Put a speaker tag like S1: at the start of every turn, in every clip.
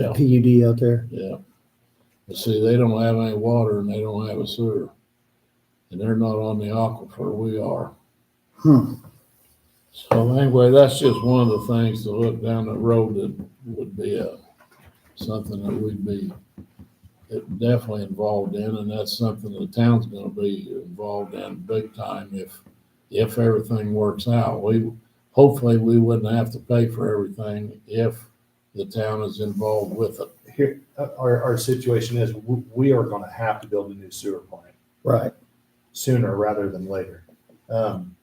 S1: Yeah.
S2: PUD out there.
S1: Yeah. But see, they don't have any water and they don't have a sewer. And they're not on the aquifer, we are.
S2: Hmm.
S1: So anyway, that's just one of the things to look down the road that would be a, something that we'd be definitely involved in, and that's something the town's gonna be involved in big time if, if everything works out. We, hopefully, we wouldn't have to pay for everything if the town is involved with it.
S3: Here, uh, our, our situation is, w- we are gonna have to build a new sewer plant
S2: Right.
S3: sooner rather than later. Um,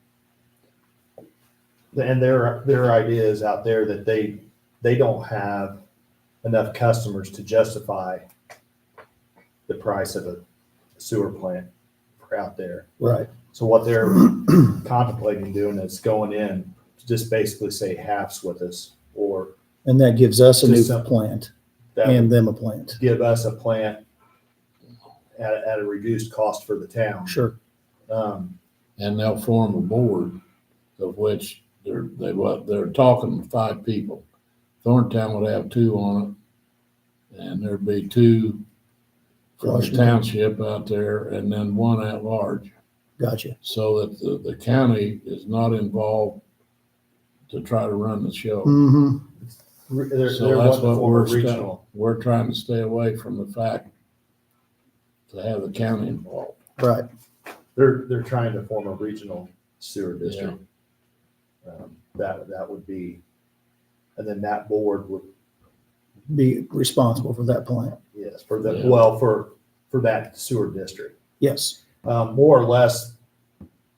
S3: And their, their idea is out there that they, they don't have enough customers to justify the price of a sewer plant for out there.
S2: Right.
S3: So what they're contemplating doing is going in to just basically say halves with us, or
S2: And that gives us a new
S3: Just something.
S2: plant
S3: that would
S2: and them a plant.
S3: give us a plant at, at a reduced cost for the town.
S2: Sure.
S3: Um,
S1: And they'll form a board of which they're, they, what, they're talking five people. Thorntown would have two on it, and there'd be two from the
S2: Gotcha.
S1: township out there, and then one at large.
S2: Gotcha.
S1: so that the, the county is not involved to try to run the
S3: Hmm.
S1: show.
S2: Mm-hmm.
S3: re- they're,
S1: So
S3: they're
S1: that's
S3: wanting to
S1: what
S3: form
S1: we're,
S3: a
S1: sta-
S3: regional.
S1: we're trying to stay away from the fact to have the county involved.
S2: Right.
S3: They're, they're trying to form a regional sewer district. Um, That, that would be, and then that board would,
S2: Be responsible for that plant.
S3: yes, for the,
S1: Yeah.
S3: well, for, for that sewer district.
S2: Yes.
S3: Um, more or less,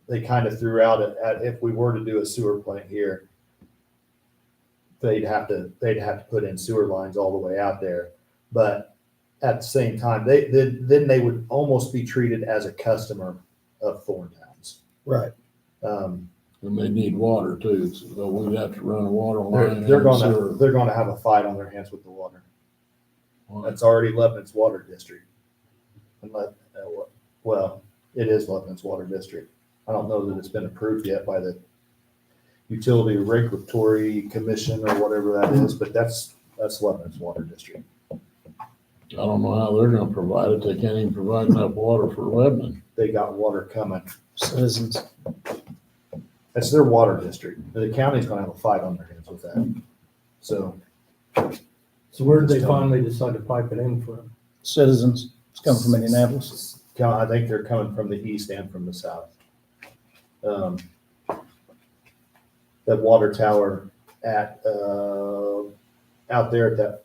S3: they kind of threw out at, at if we were to do a sewer plant here, they'd have to, they'd have to put in sewer lines all the way out there. But at the same time, they, then, then they would almost be treated as a customer of Thorn Towns.
S2: Right.
S3: Um,
S1: And they need water too, so we'd have to run a water
S3: they're,
S1: line.
S3: they're
S1: and
S3: gonna,
S1: sewer.
S3: they're gonna have a fight on their hands with the water. That's already Lebanon's water district. Unless, uh, wha- well, it is Lebanon's water district. I don't know that it's been approved yet by the utility regulatory commission or whatever that is, but that's, that's Lebanon's water district.
S1: I don't know how they're gonna provide it. They can't even provide enough water for Lebanon.
S3: They got water coming.
S2: Citizens.
S3: That's their water district. The county's gonna have a fight on their hands with that. So
S4: So where did they finally decide to pipe it in from?
S2: Citizens. It's coming from Indianapolis.
S3: kind of- I think they're coming from the east and from the south. Um, That water tower at, uh, out there at that,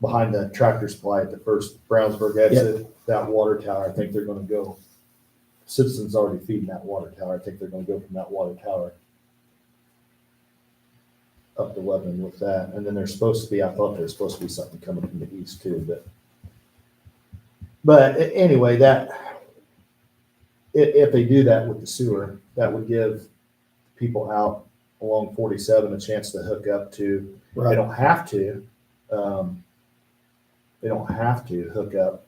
S3: behind the tractor supply at the first Brownsburg exit, that water tower, I think they're gonna go. Citizens already feeding that water tower. I think they're gonna go from that water tower up to Lebanon with that. And then there's supposed to be, I thought there's supposed to be something coming from the east too, but but a- anyway, that, i- if they do that with the sewer, that would give people out along forty-seven a chance to hook up to, they
S2: Right.
S3: don't have to, um, they don't have to hook up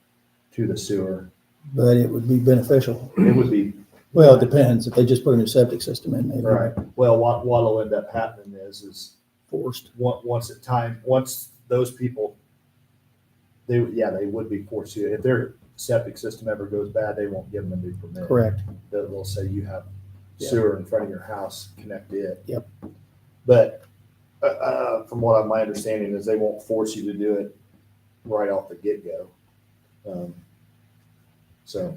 S3: to the sewer.
S2: But it would be beneficial.
S3: It would be,
S2: Well, it depends. If they just put a new septic system in, maybe.
S3: right, well, what, what'll end up happening is, is
S2: Forced.
S3: on- once at time, once those people, they, yeah, they would be forced to, if their septic system ever goes bad, they won't give them a new permit.
S2: Correct.
S3: that will say you have
S2: Yeah.
S3: sewer in front of your house, connect it.
S2: Yep.
S3: But, uh, uh, from what I, my understanding is they won't force you to do it right off the get-go. Um, So,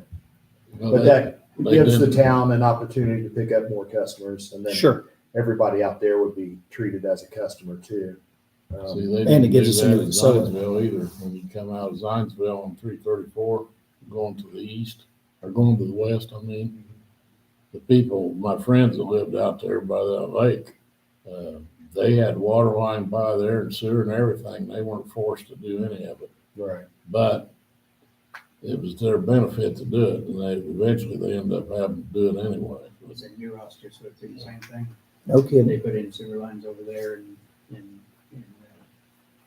S1: Well,
S3: but
S1: they-
S3: that
S1: they
S3: gives the
S1: didn't-
S3: town an opportunity to pick up more customers and then
S2: Sure.
S3: everybody out there would be treated as a customer too. Um,
S1: See, they
S2: And
S1: didn't
S2: it gives
S1: do
S2: us a new
S1: that in
S2: facility.
S1: Zionsville either. When you come out of Zionsville on three thirty-four, going to the east, or going to the west, I mean, the people, my friends that lived out there by that lake, uh, they had water line by there and sewer and everything. They weren't forced to do any of it,
S3: Right.
S1: but it was their benefit to do it, and they, eventually they ended up having to do it anyway.
S5: was in New Ross just went through the same thing.
S2: No kidding.
S5: They put in sewer lines over there and, and, and uh,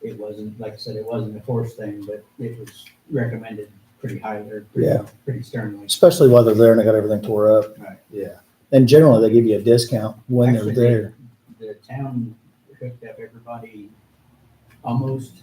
S5: it wasn't, like I said, it wasn't a forced thing, but it was recommended pretty highly, or pretty,
S2: Yeah.
S5: pretty sternly.
S2: Especially while they're there and they got everything tore up.
S3: Yeah,
S2: And generally, they give you a discount when they're
S5: Actually,
S2: there.
S5: The town hooked up everybody almost